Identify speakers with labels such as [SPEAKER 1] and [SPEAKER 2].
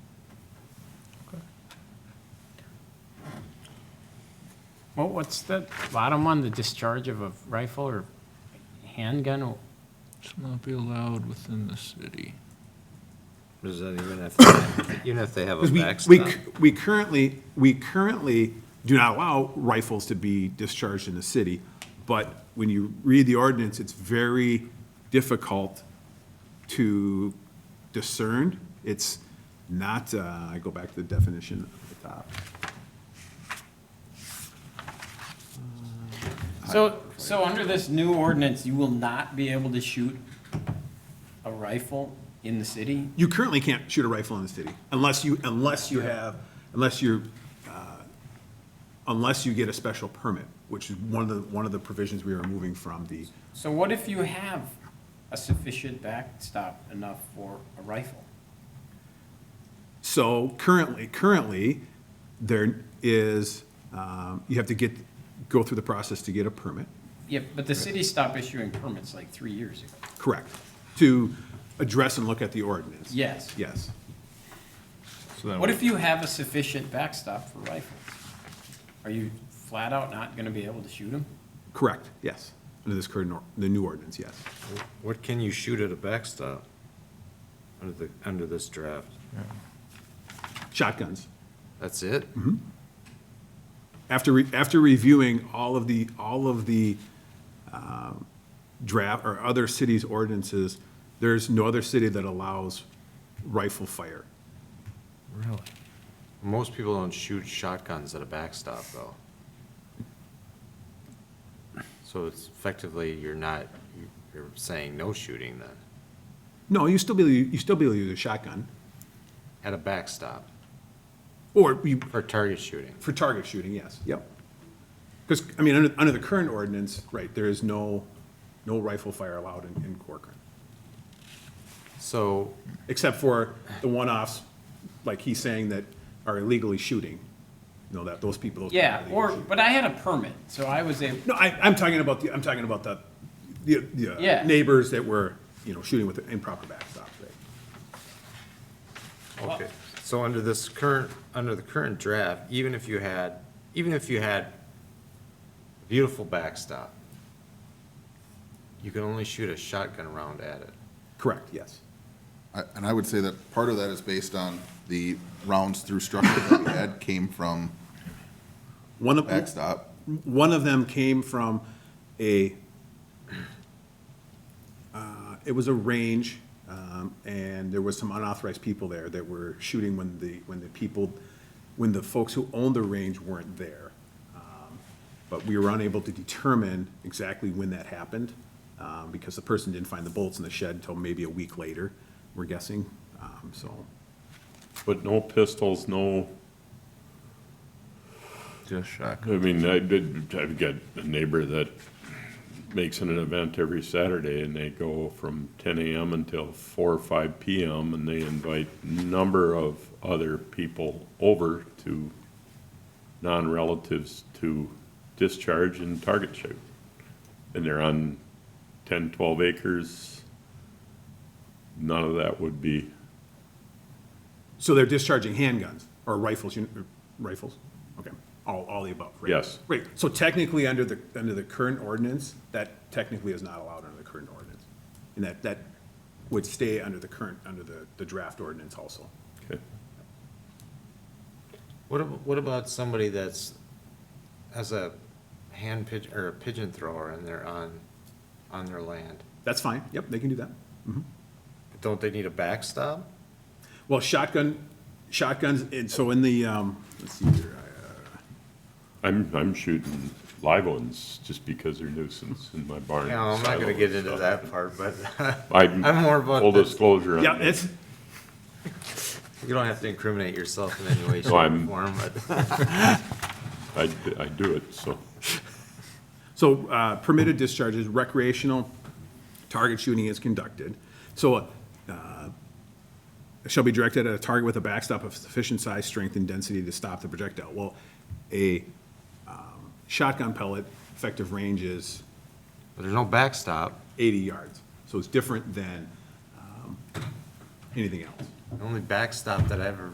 [SPEAKER 1] what's the bottom one, the discharge of a rifle or handgun?
[SPEAKER 2] Shall not be allowed within the city.
[SPEAKER 3] Does that even have, to- even if they have a
[SPEAKER 4] Because we,
[SPEAKER 3] backstop?
[SPEAKER 4] we, c- we currently, we currently do not allow rifles to be discharged in the city, but when you read the ordinance, it's very difficult to discern. It's not, uh, I go back to the definition at the top.
[SPEAKER 1] So, so under this new ordinance, you will not be able to shoot a rifle in the city?
[SPEAKER 4] You currently can't shoot a rifle in the city unless you, unless you have, unless you're, uh, unless you get a special permit, which is one of the, one of the provisions we are moving from the,
[SPEAKER 1] So what if you have a sufficient backstop enough for a rifle?
[SPEAKER 4] So currently, currently, there is, um, you have to get, go through the process to get a permit,
[SPEAKER 1] Yeah, but the city stopped issuing permits like three years ago.
[SPEAKER 4] correct, to address and look at the ordinance.
[SPEAKER 1] Yes.
[SPEAKER 4] Yes.
[SPEAKER 3] So then
[SPEAKER 1] What if you have a sufficient backstop for rifles? Are you flat out not gonna be able to shoot them?
[SPEAKER 4] Correct, yes. Under this current, or- the new ordinance, yes.
[SPEAKER 3] What can you shoot at a backstop under the, under this draft?
[SPEAKER 4] Shotguns.
[SPEAKER 3] That's it?
[SPEAKER 4] Mm-hmm. After, re- after reviewing all of the, all of the um, draft or other cities' ordinances, there's no other city that allows rifle fire.
[SPEAKER 3] Most people don't shoot shotguns at a backstop, though. So it's effectively, you're not, you're saying no shooting then,
[SPEAKER 4] No, you still be, you still be able to use a shotgun,
[SPEAKER 3] at a backstop,
[SPEAKER 4] or you,
[SPEAKER 3] for target shooting.
[SPEAKER 4] For target shooting, yes. Yep. Because, I mean, under, under the current ordinance, right, there is no, no rifle fire allowed in, in Corcoran.
[SPEAKER 3] So,
[SPEAKER 4] Except for the one-offs, like he's saying, that are illegally shooting. You know, that, those people. those people are
[SPEAKER 1] Yeah,
[SPEAKER 4] illegally
[SPEAKER 1] or,
[SPEAKER 4] shooting.
[SPEAKER 1] but I had a permit, so I was able,
[SPEAKER 4] No, I, I'm talking about the, I'm talking about the, the, the
[SPEAKER 1] Yeah.
[SPEAKER 4] uh, neighbors that were, you know, shooting with an improper backstop, right?
[SPEAKER 3] okay, so under this current, under the current draft, even if you had, even if you had a beautiful backstop, you can only shoot a shotgun round at it.
[SPEAKER 4] Correct, yes.
[SPEAKER 5] I- And I would say that part of that is based on the rounds through structure that we had came from
[SPEAKER 4] One of,
[SPEAKER 5] backstop.
[SPEAKER 4] one of them came from a, uh, it was a range, um, and there was some unauthorized people there that were shooting when the, when the people, when the folks who owned the range weren't there. Um, But we were unable to determine exactly when that happened, um, because the person didn't find the bullets in the shed until maybe a week later, we're guessing, um, so.
[SPEAKER 6] But no pistols, no,
[SPEAKER 7] Just shock.
[SPEAKER 6] I mean, I did, I've got a neighbor that makes an event every Saturday and they go from ten AM until four or five PM and they invite number of other people over to non-relatives to discharge and target shoot. And they're on 10, 12 acres. None of that would be,
[SPEAKER 4] So they're discharging handguns or rifles, you- or rifles? Okay, all, all the above, right?
[SPEAKER 6] Yes.
[SPEAKER 4] Right, so technically, under the, under the current ordinance, that technically is not allowed under the current ordinance. And that, that would stay under the current, under the, the draft ordinance also.
[SPEAKER 6] okay.
[SPEAKER 3] What, ab- what about somebody that's, has a hand pigeon, or a pigeon thrower and they're on, on their land?
[SPEAKER 4] That's fine, yep, they can do that.
[SPEAKER 3] Don't they need a backstop?
[SPEAKER 4] Well, shotgun, shotguns, and so in the, um, let's see here, I, uh,
[SPEAKER 6] I'm, I'm shooting live ones just because they're nuisance in my barn.
[SPEAKER 3] No, I'm not gonna
[SPEAKER 6] silo
[SPEAKER 3] get
[SPEAKER 6] and
[SPEAKER 3] into
[SPEAKER 6] stuff.
[SPEAKER 3] that part, but
[SPEAKER 6] I'm,
[SPEAKER 3] I'm more about
[SPEAKER 6] full
[SPEAKER 3] the-
[SPEAKER 6] disclosure. on
[SPEAKER 4] yeah,
[SPEAKER 6] that.
[SPEAKER 4] it's,
[SPEAKER 3] you don't have to incriminate yourself in any way, shape,
[SPEAKER 6] No,
[SPEAKER 3] or
[SPEAKER 6] I'm-
[SPEAKER 3] form, but.
[SPEAKER 6] I, d- I do it, so.
[SPEAKER 4] So uh, permitted discharges, recreational target shooting is conducted. So uh, shall be directed at a target with a backstop of sufficient size, strength, and density to stop the projectile. Well, a um, shotgun pellet effective range is
[SPEAKER 3] But there's no backstop.
[SPEAKER 4] 80 yards. So it's different than um, anything else.
[SPEAKER 3] The only backstop that I ever